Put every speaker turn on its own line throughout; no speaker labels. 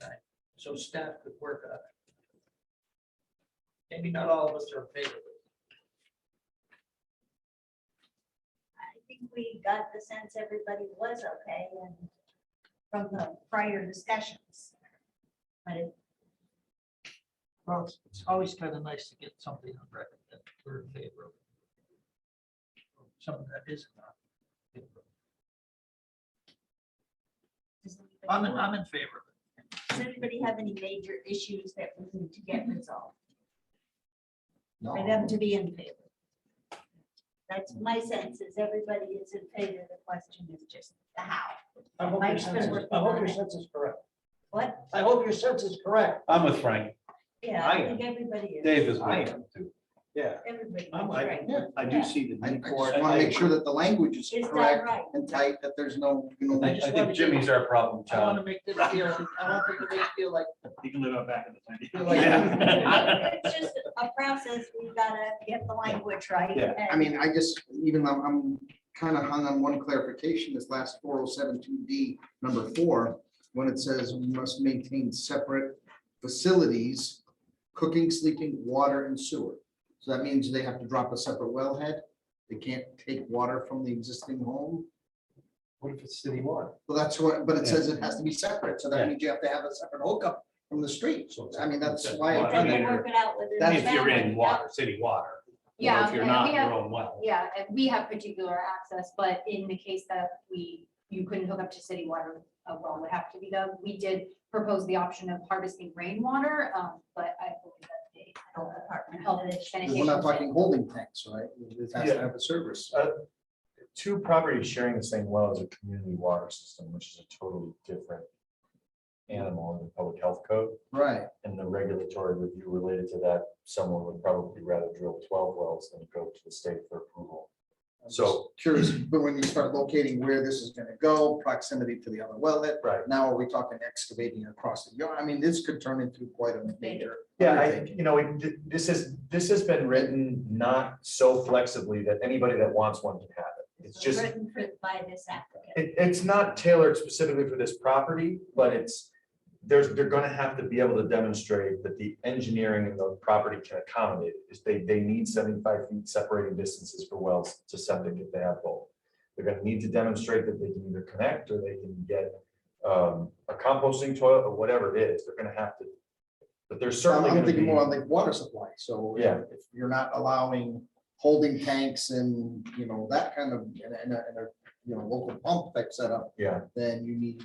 time, so staff could work on it. Maybe not all of us are in favor of it.
I think we got the sense everybody was okay and from the prior discussions. But it,
Well, it's- it's always kind of nice to get something on record that we're in favor of. Something that is not. in favor of it.
does
I'm,
anybody-
in- I'm in favor of it.
does anybody have any major issues that we need to get resolved for
No,
them to be in favor? That's my sense is everybody is in favor. The question is just the how.
I hope your
Mike's been
sense is,
working
I hope
on
your
it.
sense is correct.
What?
I hope your sense is correct.
I'm with Frank.
Yeah,
I
I
am.
think everybody is.
Dave is
I
with.
am too.
Yeah.
Everybody is
I'm like-
right.
I
do
see
I I just want to make sure that the language is
Is that
correct
right?
and tight, that there's no, you know.
I
just
I
wanna
think Jimmy's our problem
I want to
child.
make this feel, I want to make it feel like.
You can live out back in
feel
the
like-
Yeah.
It's just a process. We've got to get the language right.
Yeah,
I mean, I just, even I'm, I'm kind of hung on one clarification, this last four oh seven two D, number four, when it says we must maintain separate facilities, cooking, sleeping, water and sewer. So that means they have to drop a separate wellhead. They can't take water from the existing home.
What if it's city water?
Well, that's what, but it says it has to be separate. So that means you have to have a separate hookup from the street.
So
I mean, that's why.
But
I
Then
found
they
that-
work it out within. the
That's-
If you're
boundaries.
in water, city water. You know,
Yeah,
If you're
and
not,
we have-
you're on well.
Yeah, and we have particular access, but in the case that we, you couldn't hook up to city water, a well would have to be dug. We did propose the option of harvesting rainwater, um, but I believe that they.
Health department.
Health and
We're not
sanitation.
talking holding tanks, right? It has to have a service.
two properties sharing the same well is a community water system, which is a totally different animal in the public health code,
Right.
and the regulatory review related to that, someone would probably rather drill twelve wells than go to the state for approval.
I'm
So-
just Curious, but when you start locating where this is gonna go, proximity to the other wellhead.
Right.
Now are we talking excavating across the yard? I mean, this could turn into quite a major.
Yeah, I, you know, it- this is, this has been written not so flexibly that anybody that wants one can have it. It's just, it,
Written for, by this applicant.
it's not tailored specifically for this property, but it's, there's, they're gonna have to be able to demonstrate that the engineering of the property can accommodate. it. If they, they need seventy-five feet separating distances for wells to septic if they have both. They're gonna need to demonstrate that they can either connect or they can get um, a composting toilet or whatever it is. They're gonna have to. But there's certainly
I'm
gonna
thinking more
be,
on like water supply, so.
yeah.
If you're not allowing holding tanks and, you know, that kind of, and, and, a- and a, you know, local pump type setup,
Yeah,
then you need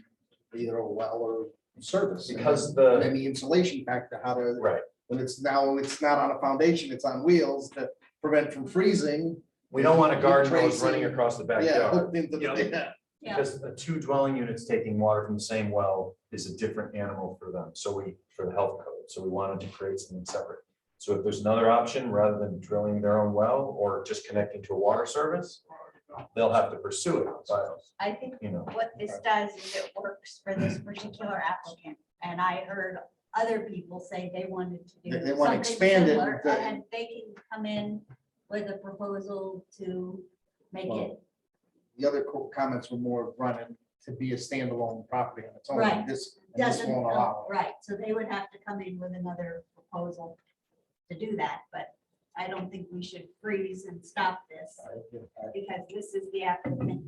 either a well or service. And
because
then-
the,
Then the insulation factor, how to,
right,
when it's now, it's not on a foundation, it's on wheels to prevent from freezing.
we don't want a
You're
garden hose
tracing-
running across the
Yeah,
backyard.
hooked into the-
Yeah.
yeah.
Yeah.
Because the two dwelling units taking water from the same well is a different animal for them, so we, for the health code, so we wanted to create something separate. So if there's another option, rather than drilling their own well or just connecting to a water service, they'll have to pursue it, but,
I think
you know.
what this does is it works for this particular applicant. And I heard other people say they wanted to do.
They- they wanna
something
expand it
similar,
to-
And they can come in with a proposal to make it,
Well, The other co- comments were more running to be a standalone property on its own.
Right.
This, and this
doesn't,
won't allow.
right, so they would have to come in with another proposal to do that, but I don't think we should freeze and stop this.
it.
because this is the applicant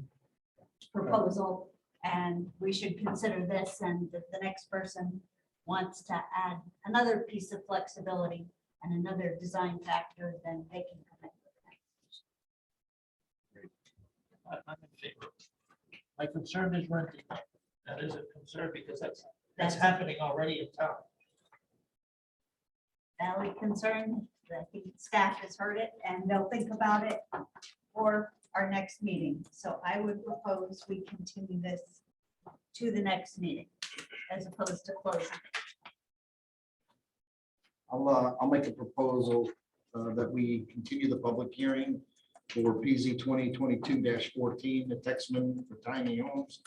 proposal, and we should consider this, and if the next person wants to add another piece of flexibility and another design factor, then they can come in.
I- I'm in favor. of it. My concern is renting. That is a concern because that's, that's
That's-
happening already in town.
Valid concern, I think staff has heard it, and they'll think about it for our next meeting. So I would propose we continue this to the next meeting, as opposed to closing.
I'll, uh, I'll make a proposal uh, that we continue the public hearing for PZ twenty twenty-two fourteen, the Texman for tiny homes.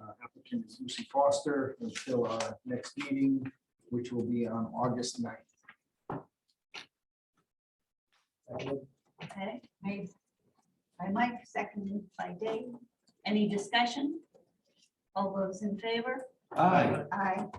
Uh, Applicant is Lucy Foster until our next meeting, which will be on August 9th.
Okay, made by Mike, seconded by Dave. Any discussion? All those in favor?
Aye.
Aye.